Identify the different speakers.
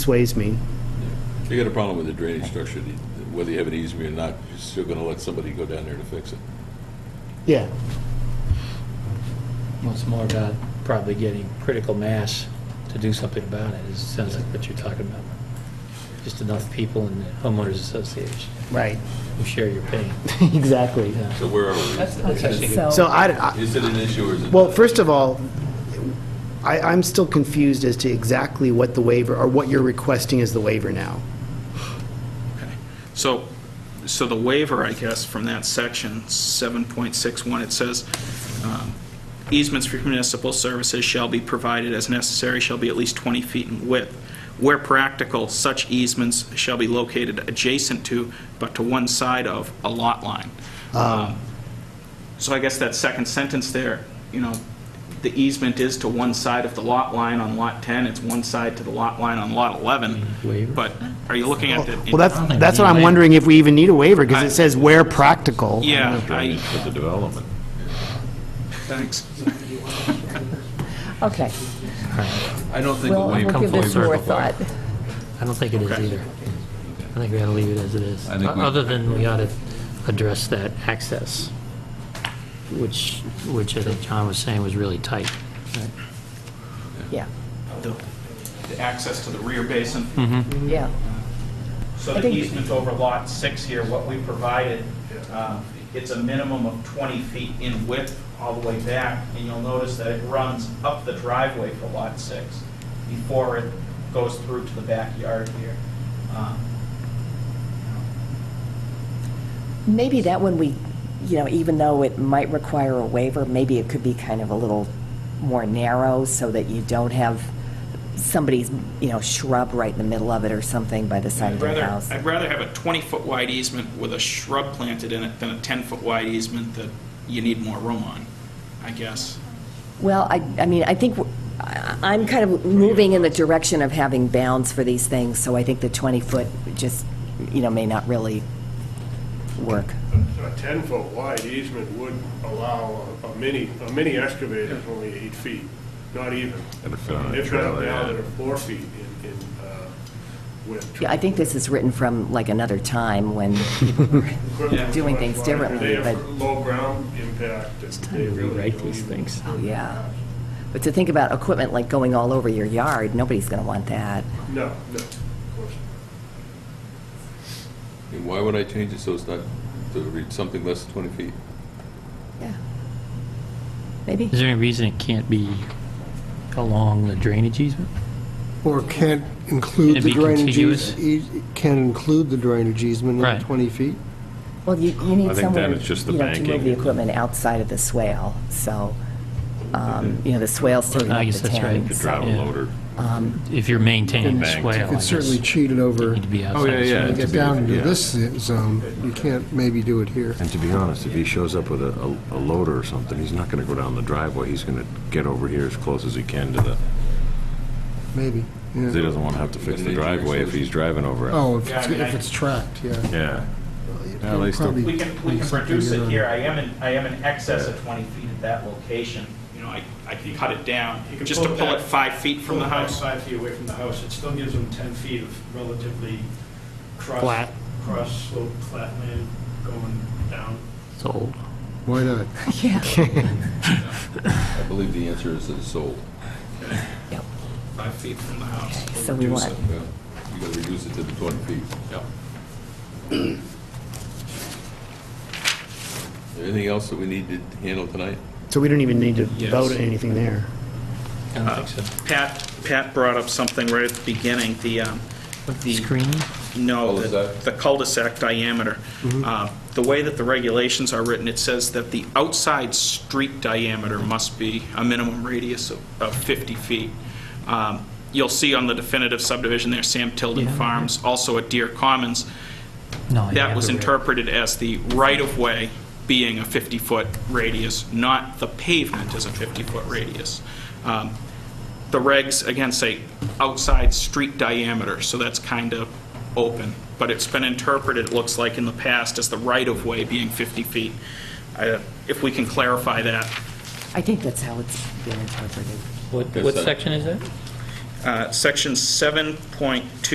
Speaker 1: sways me.
Speaker 2: If you got a problem with the drainage structure, the- whether you have an easement or not, you're still gonna let somebody go down there to fix it.
Speaker 1: Yeah,
Speaker 3: Well, it's more about probably getting critical mass to do something about it, it sounds like what you're talking about. Just enough people in the homeowners association
Speaker 1: right,
Speaker 3: who share your pain.
Speaker 1: exactly.
Speaker 3: Yeah.
Speaker 2: So where are we?
Speaker 3: That's actually
Speaker 4: So-
Speaker 3: good.
Speaker 1: So I, I-
Speaker 2: Is it an issue or is it?
Speaker 1: well,
Speaker 2: not?
Speaker 1: first of all, I, I'm still confused as to exactly what the waiver, or what you're requesting as the waiver now.
Speaker 5: So, so the waiver, I guess, from that section, 7.61, it says, um, easements for municipal services shall be provided as necessary, shall be at least 20 feet in width. Where practical, such easements shall be located adjacent to, but to one side of, a lot line.
Speaker 1: Ah.
Speaker 5: Um, So I guess that second sentence there, you know, the easement is to one side of the lot line on Lot 10, it's one side to the lot line on Lot 11,
Speaker 3: Waiver.
Speaker 5: but are you looking at the...
Speaker 1: Well, that's, that's what I'm wondering, if we even need a waiver, because it says where practical.
Speaker 5: Yeah, I,
Speaker 2: Drainage for the development.
Speaker 5: thanks.
Speaker 4: Okay,
Speaker 2: I don't think
Speaker 4: we'll, we'll give this more thought.
Speaker 3: I don't think it is either. I think we ought to leave it as it is.
Speaker 2: I think we-
Speaker 3: Other than we ought to address that access, which, which I think John was saying was really tight.
Speaker 4: Yeah,
Speaker 5: The the access to the rear basin.
Speaker 4: yeah,
Speaker 5: So
Speaker 4: I
Speaker 5: the
Speaker 4: think-
Speaker 5: easement over lot six here, what we provided, um, it's a minimum of 20 feet in width all the way back, and you'll notice that it runs up the driveway for lot six before it goes through to the backyard here. Um,
Speaker 4: maybe that one we, you know, even though it might require a waiver, maybe it could be kind of a little more narrow so that you don't have somebody's, you know, shrub right in the middle of it or something by the side of
Speaker 5: I'd
Speaker 4: their
Speaker 5: rather,
Speaker 4: house.
Speaker 5: I'd rather have a 20-foot wide easement with a shrub planted in it than a 10-foot wide easement that you need more room on, I guess.
Speaker 4: Well, I, I mean, I think, w- I- I'm kind of moving in the direction of having bounds for these things, so I think the 20-foot just, you know, may not really work.
Speaker 6: A 10-foot wide easement would allow a- a mini, a mini excavator is only eight feet, not even.
Speaker 2: And it's not a
Speaker 6: If not,
Speaker 2: trailer, yeah.
Speaker 6: now they're four feet in, in uh, width.
Speaker 4: Yeah, I think this is written from like another time when people were doing things differently,
Speaker 6: They
Speaker 4: but,
Speaker 6: have low ground impact. It's time to
Speaker 3: Rewrite these things.
Speaker 4: oh, yeah. But to think about equipment like going all over your yard, nobody's going to want that.
Speaker 6: No, no, of course not.
Speaker 2: And why would I change it so it's not, to read something less than 20 feet?
Speaker 4: Yeah. Maybe?
Speaker 3: Is there any reason it can't be along the drainage easement?
Speaker 7: Or can't
Speaker 3: Can it
Speaker 7: include the
Speaker 3: be
Speaker 7: drainage
Speaker 3: contiguous?
Speaker 7: easement, e, can include the drainage easement in
Speaker 3: Right. Oh,
Speaker 7: the 20 feet?
Speaker 4: Well, you, you need
Speaker 8: I think
Speaker 4: somewhere,
Speaker 8: then it's just the
Speaker 4: you know, to move
Speaker 8: banking.
Speaker 4: the equipment outside of the swale, so, um, you know, the swale's taking
Speaker 3: I
Speaker 4: up
Speaker 3: guess
Speaker 4: the
Speaker 3: that's
Speaker 4: town.
Speaker 3: right.
Speaker 8: Could
Speaker 4: so-
Speaker 8: drive a
Speaker 3: Yeah.
Speaker 8: loader.
Speaker 3: If you're maintaining the
Speaker 8: Banked.
Speaker 3: swale, I
Speaker 7: It's
Speaker 3: guess.
Speaker 7: certainly cheated over.
Speaker 3: Need to be outside.
Speaker 8: yeah,
Speaker 3: the
Speaker 8: yeah.
Speaker 3: swale.
Speaker 7: When you
Speaker 8: to
Speaker 7: get
Speaker 8: be-
Speaker 7: down into
Speaker 8: yeah.
Speaker 7: this zone, you can't maybe do it here.
Speaker 8: And to be honest, if he shows up with a, a loader or something, he's not gonna go down the driveway, he's gonna get over here as close as he can to the,
Speaker 7: Maybe,
Speaker 8: because he
Speaker 7: yeah.
Speaker 8: doesn't wanna have to fix the driveway if he's driving over it.
Speaker 7: Oh, if it's, if it's tracked, yeah.
Speaker 8: Yeah.
Speaker 7: You'd
Speaker 8: they still-
Speaker 7: probably
Speaker 5: We can, we
Speaker 7: need
Speaker 5: can
Speaker 7: something
Speaker 5: reduce
Speaker 7: in
Speaker 5: it
Speaker 7: on-
Speaker 5: here, I am in, I am in excess of 20 feet at that location, you know, I, I can cut it down,
Speaker 9: You can
Speaker 5: just to
Speaker 9: pull it
Speaker 5: pull it
Speaker 9: back.
Speaker 5: five feet from the house.
Speaker 9: Five feet away from the house, it still gives them 10 feet of relatively cross.
Speaker 3: Flat.
Speaker 9: Cross slope, flat land going down.
Speaker 3: It's old.
Speaker 7: Why not?
Speaker 2: I believe the answer is that it's sold.
Speaker 4: Yep.
Speaker 5: Five feet from the house.
Speaker 4: So we want,
Speaker 2: Yeah. You gotta reduce it to the 20 feet. Yeah. Anything else that we need to handle tonight?
Speaker 1: So we don't even need to
Speaker 5: Yes.
Speaker 1: vote on anything there.
Speaker 3: I don't think so.
Speaker 5: Pat, Pat brought up something right at the beginning, the, um, the,
Speaker 3: Screening?
Speaker 5: no, the
Speaker 2: Cul-de-sac?
Speaker 5: the cul-de-sac diameter. Uh, The way that the regulations are written, it says that the outside street diameter must be a minimum radius of of 50 feet. Um, You'll see on the definitive subdivision there, Sam Tilden Farms, also at Deer Commons,
Speaker 3: No. you
Speaker 5: that
Speaker 3: have
Speaker 5: was
Speaker 3: the-
Speaker 5: interpreted as the right-of-way being a 50-foot radius, not the pavement as a 50-foot radius. Um, The regs, again, say outside street diameter, so that's kind of open, but it's been interpreted, it looks like in the past, as the right-of-way being 50 feet. I- If we can clarify that,
Speaker 4: I think that's how it's been interpreted.
Speaker 3: What, what section is that?
Speaker 5: Uh, Section 7.2